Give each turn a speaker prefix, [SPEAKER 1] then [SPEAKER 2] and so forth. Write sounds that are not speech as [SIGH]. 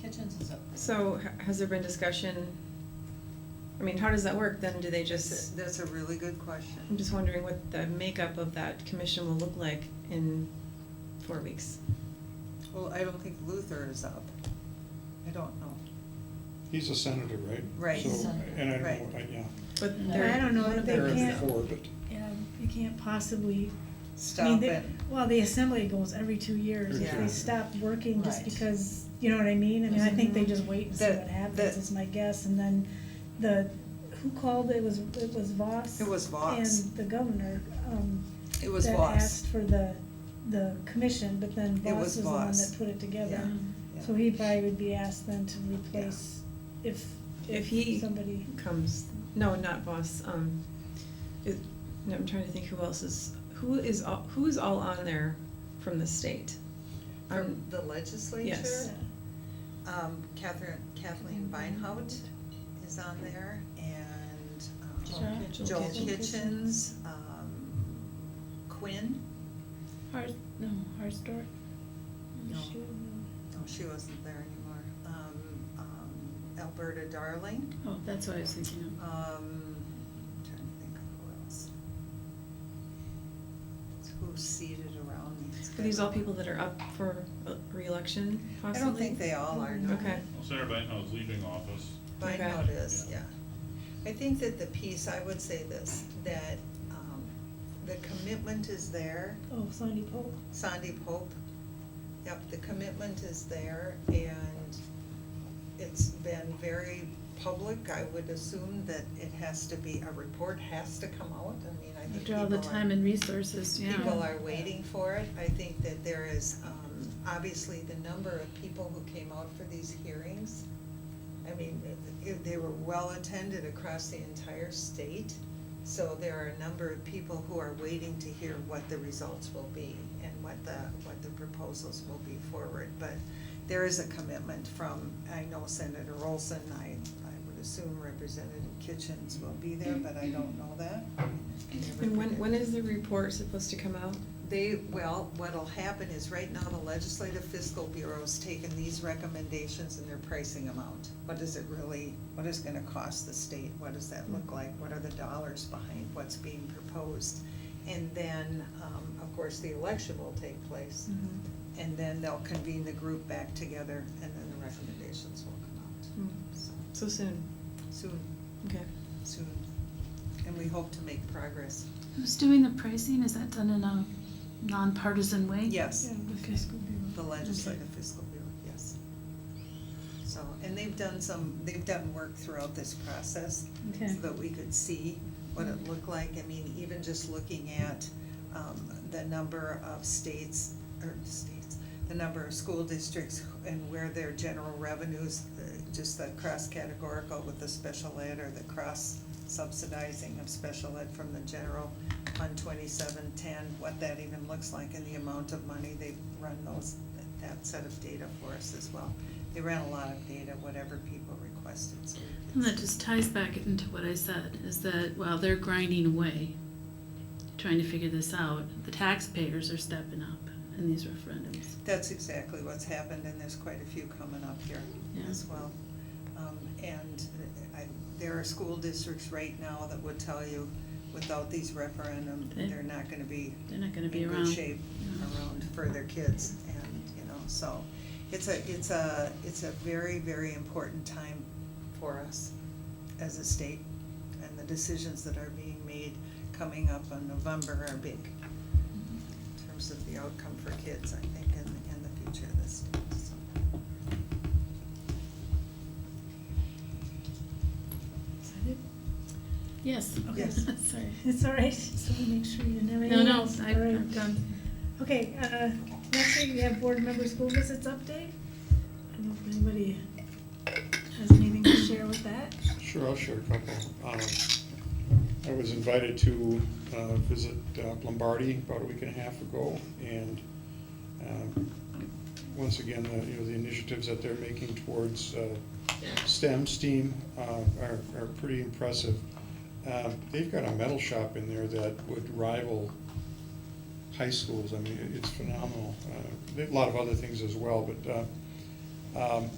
[SPEAKER 1] kitchens and so.
[SPEAKER 2] So h- has there been discussion, I mean, how does that work then? Do they
[SPEAKER 3] That's
[SPEAKER 2] just,
[SPEAKER 3] that's a really good question.
[SPEAKER 2] I'm just wondering what the makeup of that commission will look like in four weeks.
[SPEAKER 3] Well, I don't think Luther is up. I don't know.
[SPEAKER 4] He's a senator, right?
[SPEAKER 3] Right.
[SPEAKER 4] So,
[SPEAKER 1] He's a senator.
[SPEAKER 4] and I
[SPEAKER 3] Right.
[SPEAKER 4] don't, I- yeah.
[SPEAKER 2] But
[SPEAKER 1] No.
[SPEAKER 2] they're-
[SPEAKER 5] I don't know
[SPEAKER 2] one
[SPEAKER 5] that
[SPEAKER 2] of
[SPEAKER 5] they
[SPEAKER 2] them
[SPEAKER 4] They're
[SPEAKER 2] is-
[SPEAKER 4] in
[SPEAKER 5] can't-
[SPEAKER 4] for, but
[SPEAKER 5] Yeah, you can't possibly. I mean,
[SPEAKER 3] Stop
[SPEAKER 5] they-
[SPEAKER 3] it.
[SPEAKER 5] Well, the assembly goes every two years, if
[SPEAKER 3] Yeah.
[SPEAKER 5] they stop working just
[SPEAKER 1] Right.
[SPEAKER 5] because, you know what I mean? I mean, I think they just wait and see
[SPEAKER 3] That-
[SPEAKER 5] what happens,
[SPEAKER 3] that-
[SPEAKER 5] is my guess, and then the, who called, it was, it was Voss?
[SPEAKER 3] It was Voss.
[SPEAKER 5] And the governor, um.
[SPEAKER 3] It was
[SPEAKER 5] That
[SPEAKER 3] Voss.
[SPEAKER 5] asked for the, the commission, but then
[SPEAKER 3] It was
[SPEAKER 5] Voss was the one
[SPEAKER 3] Voss.
[SPEAKER 5] that put it together.
[SPEAKER 3] Yeah. Yeah.
[SPEAKER 5] So he probably would be asked then to replace if,
[SPEAKER 2] If he-
[SPEAKER 5] if somebody,
[SPEAKER 2] comes, no, not Voss, um, it, no, I'm trying to think who else is, who is, all- who is all on there from the state?
[SPEAKER 3] From
[SPEAKER 2] Um,
[SPEAKER 3] the legislature,
[SPEAKER 2] yes.
[SPEAKER 3] um, Catherine, Kathleen Beinhout is on there and, um,
[SPEAKER 2] Joel
[SPEAKER 3] Joel
[SPEAKER 2] Kitchen.
[SPEAKER 3] Kitchens, um, Quinn,
[SPEAKER 6] Hard, no, hard store.
[SPEAKER 3] No. no, she wasn't there anymore, um, um, Alberta Darling,
[SPEAKER 6] Oh, that's what I was thinking
[SPEAKER 3] um, trying to think of who else. Who's seated around me? It's
[SPEAKER 2] Are these all
[SPEAKER 3] been-
[SPEAKER 2] people that are up for uh, reelection
[SPEAKER 3] I
[SPEAKER 2] possibly?
[SPEAKER 3] don't think they all are, no.
[SPEAKER 2] Okay,
[SPEAKER 7] Well, Sarah Bankhouse leaving office.
[SPEAKER 3] My
[SPEAKER 2] Okay.
[SPEAKER 3] note is, yeah. I think that the piece, I would say this, that um, the commitment is there,
[SPEAKER 5] oh, Sandy Pope.
[SPEAKER 3] Sandy Pope, yep, the commitment is there, and it's been very public. I would assume that it has to be, a report has to come out, I mean, I
[SPEAKER 6] of.
[SPEAKER 3] think
[SPEAKER 6] After
[SPEAKER 3] people are.
[SPEAKER 6] all the time and resources, yeah.
[SPEAKER 3] People are waiting for it. I think that there is, um, obviously, the number of people who came out for these hearings. I mean, it- they were well-attended across the entire state. So there are a number of people who are waiting to hear what the results will be and what the, what the proposals will be forward. But there is a commitment from, I know Senator Olson, I, I would assume Representative Kitchens will be there, but I don't know that. I can never
[SPEAKER 2] and when,
[SPEAKER 3] predict.
[SPEAKER 2] when is the report supposed to come out?
[SPEAKER 3] They, well, what'll happen is right now the Legislative Fiscal Bureau's taken these recommendations and they're pricing them out. What does it really, what is gonna cost the state? What does that look like? What are the dollars behind what's being proposed? And then, um, of course, the election will take place. And then they'll convene the group back together and then the recommendations will come out.
[SPEAKER 2] Mm,
[SPEAKER 3] So
[SPEAKER 2] So soon,
[SPEAKER 3] soon,
[SPEAKER 2] okay.
[SPEAKER 3] soon. And we hope to make progress.
[SPEAKER 6] Who's doing the pricing? Is that done in a nonpartisan way?
[SPEAKER 3] Yes.
[SPEAKER 5] Yeah, the fiscal bureau.
[SPEAKER 3] The legislative fiscal bureau, yes. So, and they've done some, they've done work throughout this process so
[SPEAKER 6] Okay.
[SPEAKER 3] that we could see what it looked like. I mean, even just looking at um, the number of states, or states, the number of school districts and where their general revenues, uh, just the cross-categorical with the special ed or the cross-subsidizing of special ed from the general fund twenty-seven ten, what that even looks like and the amount of money they've run those, that set of data for us as well. They ran a lot of data, whatever people requested, so we could.
[SPEAKER 6] And that just ties back into what I said, is that while they're grinding away, trying to figure this out, the taxpayers are stepping up in these referendums.
[SPEAKER 3] That's exactly what's happened, and there's quite a few coming up here
[SPEAKER 6] Yeah.
[SPEAKER 3] as well. Um, and I, there are school districts right now that would tell you, without these referendum,
[SPEAKER 6] They-
[SPEAKER 3] they're not gonna be
[SPEAKER 6] They're not gonna be
[SPEAKER 3] in
[SPEAKER 6] around.
[SPEAKER 3] good shape around for their kids, and, you know, so. It's a, it's a, it's a very, very important time for us as a state, and the decisions that are being made coming up in November are big in terms of the outcome for kids, I think, in, in the future of this state, so.
[SPEAKER 5] Is that it?
[SPEAKER 6] Yes.
[SPEAKER 3] Okay. Yes.
[SPEAKER 6] [LAUGHS] Sorry.
[SPEAKER 5] It's all right, so we make sure you didn't have any.
[SPEAKER 6] No, no,
[SPEAKER 5] else.
[SPEAKER 6] I-
[SPEAKER 5] All right.
[SPEAKER 6] I'm done.
[SPEAKER 5] Okay, uh, next week we have board member school visits update. I don't know if anybody has anything to share with that.
[SPEAKER 4] Sure, I'll share a couple. Um, I was invited to uh, visit uh, Lombardi about a week and a half ago, and um, once again, the, you know, the initiatives that they're making towards uh, STEM, STEAM, uh, are, are pretty impressive. Um, They've got a metal shop in there that would rival high schools, I mean, it- it's phenomenal. Uh, they- A lot of other things as well, but uh, um,